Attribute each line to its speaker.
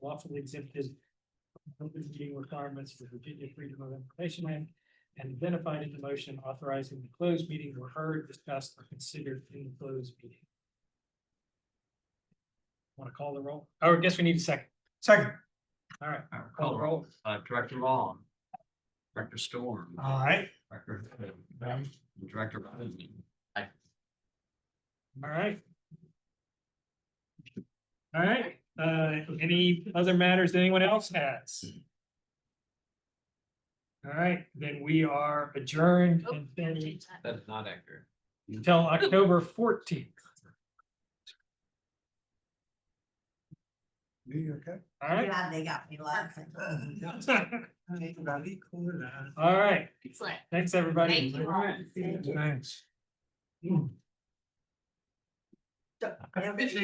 Speaker 1: lawfully exempted. from open meeting requirements for Virginia Freedom of Information Act. And identified in the motion authorizing the closed meeting were heard, discussed, or considered in the closed meeting. Want to call the roll? Oh, I guess we need a second.
Speaker 2: Second.
Speaker 1: All right,
Speaker 3: All right,
Speaker 1: call the roll.
Speaker 3: Uh, Director Long. Director Storm.
Speaker 1: Uh,
Speaker 2: Aye.
Speaker 3: Director Hood, and Director Rosen.
Speaker 1: All right. All right, uh, any other matters that anyone else has? All right, then we are adjourned
Speaker 4: Oh,
Speaker 1: until-
Speaker 4: change that.
Speaker 3: That is not accurate.
Speaker 1: until October fourteenth.
Speaker 2: You okay?
Speaker 1: All right.
Speaker 5: Glad they got me laughing.
Speaker 1: All right,
Speaker 4: Excellent.
Speaker 1: thanks, everybody.
Speaker 4: Thank you all.
Speaker 2: Thanks.
Speaker 5: So, everybody-